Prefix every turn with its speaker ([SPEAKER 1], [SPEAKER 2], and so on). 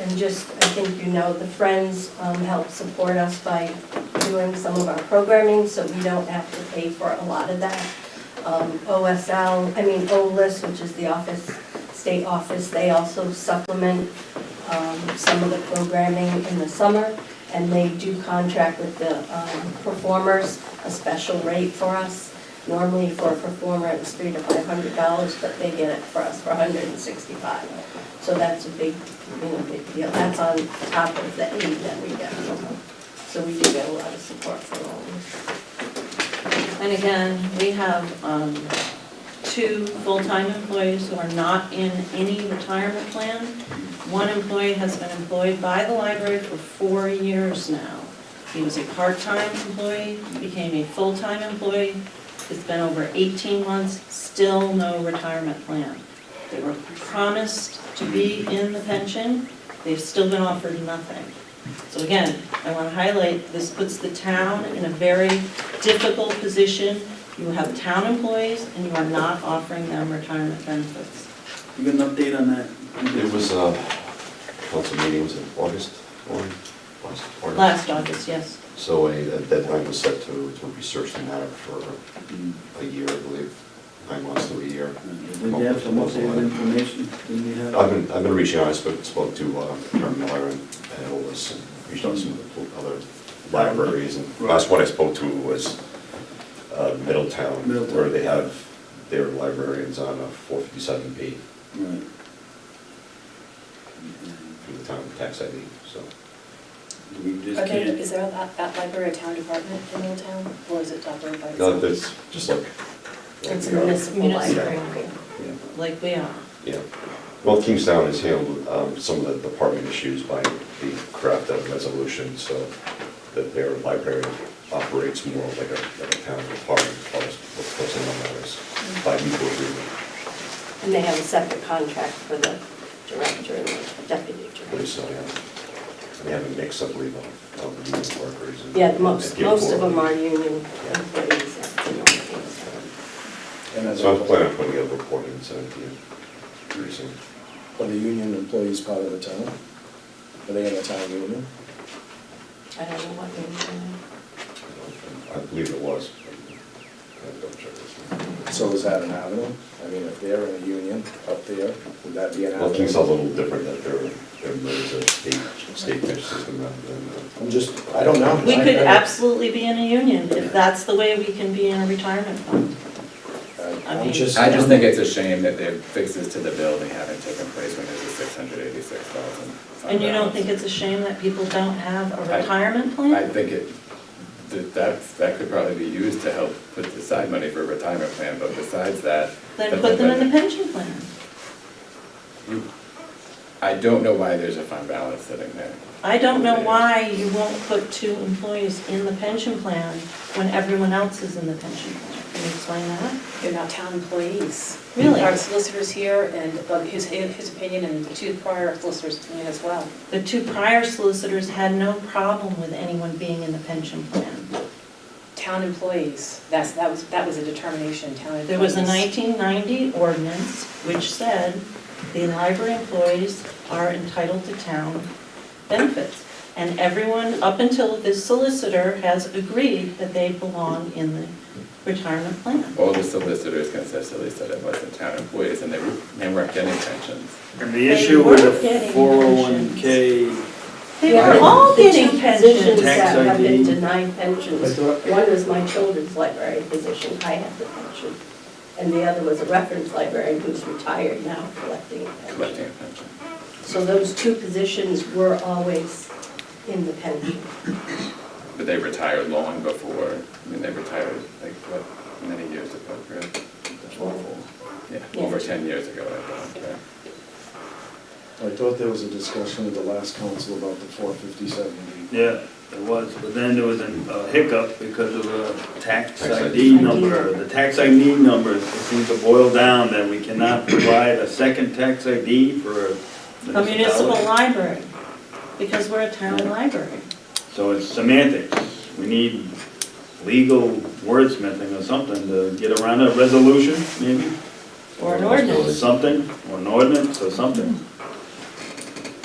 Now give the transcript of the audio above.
[SPEAKER 1] And just, I think you know, the Friends um, help support us by doing some of our programming, so we don't have to pay for a lot of that. Um, OSL, I mean, OLIS, which is the office, state office, they also supplement um, some of the programming in the summer, and they do contract with the um, performers a special rate for us. Normally for a performer, it was three to five hundred dollars, but they get it for us for hundred and sixty-five. So that's a big, you know, big deal. That's on top of the aid that we get. So we do get a lot of support from all of
[SPEAKER 2] And again, we have um, two full-time employees who are not in any retirement plan. One employee has been employed by the library for four years now. He was a part-time employee, became a full-time employee. It's been over 18 months, still no retirement plan. They were promised to be in the pension, they've still been offered nothing. So again, I want to highlight, this puts the town in a very difficult position. You have town employees and you are not offering them retirement benefits.
[SPEAKER 3] You got an update on that?
[SPEAKER 4] It was, uh, council meeting was in August, or, last August.
[SPEAKER 2] Last August, yes.
[SPEAKER 4] So a a deadline was set to, to research the matter for
[SPEAKER 3] Mm,
[SPEAKER 4] a year, I believe, nine months to a year.
[SPEAKER 3] Did you have some updated information? Didn't you have?
[SPEAKER 4] I've been, I've been reaching out, I spoke, spoke to, uh, Karen Miller and and all this, and reached out to some of the other libraries, and last one I spoke to was, uh, Middletown,
[SPEAKER 3] Middletown.
[SPEAKER 4] where they have their librarians on a four fifty-seven B
[SPEAKER 3] Right.
[SPEAKER 4] from the town tax ID, so.
[SPEAKER 3] We just
[SPEAKER 5] Are there,
[SPEAKER 3] can't.
[SPEAKER 5] is there at, at library a town department in Middletown, or is it operated by
[SPEAKER 4] No,
[SPEAKER 5] itself?
[SPEAKER 4] that's just like.
[SPEAKER 1] it. It's a
[SPEAKER 4] Yeah.
[SPEAKER 1] municipal
[SPEAKER 2] Municipal.
[SPEAKER 1] library.
[SPEAKER 4] Yeah.
[SPEAKER 2] Like we are.
[SPEAKER 4] Yeah. Well, Kingstown has handled um, some of the department issues by the craft of resolution, so that their library operates more like a, like a town department, as far as with personnel matters, by mutual agreement.
[SPEAKER 1] And they have a separate contract for the director and the deputy
[SPEAKER 4] But
[SPEAKER 1] director.
[SPEAKER 4] so, yeah, they have a mix, I believe, of, of union workers. and-
[SPEAKER 1] Yeah, most,
[SPEAKER 4] and give
[SPEAKER 1] most of
[SPEAKER 4] forward.
[SPEAKER 1] them are union employees. that's in all things.
[SPEAKER 6] And as
[SPEAKER 4] So I'm
[SPEAKER 6] a,
[SPEAKER 4] planning on putting out a report in seventeen, pretty soon.
[SPEAKER 6] are the union employees part of the town? Are they in the town union?
[SPEAKER 1] I don't know what union.
[SPEAKER 4] I believe it was. I'm gonna check this one.
[SPEAKER 6] So is that an avenue? I mean, if they're in a union up there, would that be an avenue?
[SPEAKER 4] Well, Kingstown's a little different, that they're, they're, there's a state, state pitch system rather than, uh,
[SPEAKER 6] I'm just, I don't know.
[SPEAKER 2] We
[SPEAKER 6] I-
[SPEAKER 2] could
[SPEAKER 6] I-
[SPEAKER 2] absolutely be in a union if that's the way we can be in a retirement fund.
[SPEAKER 6] I-
[SPEAKER 2] I mean-
[SPEAKER 6] I'm just.
[SPEAKER 7] I just think it's a shame that the fixes to the building haven't taken place when there's a six hundred eighty-six thousand.
[SPEAKER 2] And you don't think it's a shame that people don't have a
[SPEAKER 7] I-
[SPEAKER 2] retirement
[SPEAKER 7] I
[SPEAKER 2] plan?
[SPEAKER 7] think it, that, that's- that could probably be used to help put aside money for a retirement plan, but besides that.
[SPEAKER 2] Then put them in the pension plan.
[SPEAKER 7] You- Hmm. I don't know why there's a fund balance sitting there.
[SPEAKER 2] I don't know why you won't put two employees in the pension plan when everyone else is in the pension plan. Can you explain that?
[SPEAKER 5] They're not town employees.
[SPEAKER 2] Really?
[SPEAKER 5] Our solicitor's here, and uh, his, his opinion, and the two prior solicitors' opinion as well.
[SPEAKER 2] The two prior solicitors had no problem with anyone being in the pension plan.
[SPEAKER 5] Town employees, that's, that was, that was a determination, town employees.
[SPEAKER 2] There was a 1990 ordinance which said the library employees are entitled to town benefits. And everyone, up until this solicitor, has agreed that they belong in the retirement plan.
[SPEAKER 7] All the solicitors consistently said it wasn't town employees and they, were- they weren't getting pensions.
[SPEAKER 3] And
[SPEAKER 2] They
[SPEAKER 3] the issue with
[SPEAKER 2] were
[SPEAKER 3] the
[SPEAKER 2] getting
[SPEAKER 3] four oh one K,
[SPEAKER 2] They were all
[SPEAKER 1] The two
[SPEAKER 2] getting
[SPEAKER 1] Positions
[SPEAKER 2] pensions.
[SPEAKER 3] Tax
[SPEAKER 1] that have been
[SPEAKER 3] ID.
[SPEAKER 1] denied pensions.
[SPEAKER 3] That's what-
[SPEAKER 1] One was my children's library position, I had the pension. And the other was a reference librarian who's retired now collecting a
[SPEAKER 7] collecting
[SPEAKER 1] pension.
[SPEAKER 7] a pension.
[SPEAKER 1] So those two positions were always in the pension.
[SPEAKER 7] But they retired long before, I mean, they retired like, what, many years ago, correct? Yeah, over
[SPEAKER 1] Yeah.
[SPEAKER 7] 10 years ago, I thought, right?
[SPEAKER 6] I thought there was a discussion at the last council about the four fifty-seven.
[SPEAKER 3] yeah, it was, but then there was a a hiccup because of a tax
[SPEAKER 4] Tax ID.
[SPEAKER 3] ID number. The tax ID number seems to boil down that we cannot provide a second tax ID for a
[SPEAKER 2] A municipal
[SPEAKER 3] municipality.
[SPEAKER 2] library, because we're a town library.
[SPEAKER 3] So it's semantics. We need legal wordsmithing or something to get around a resolution, maybe?
[SPEAKER 2] Or an
[SPEAKER 4] Or an ordinance.
[SPEAKER 2] ordinance.
[SPEAKER 3] Something, or an ordinance or something.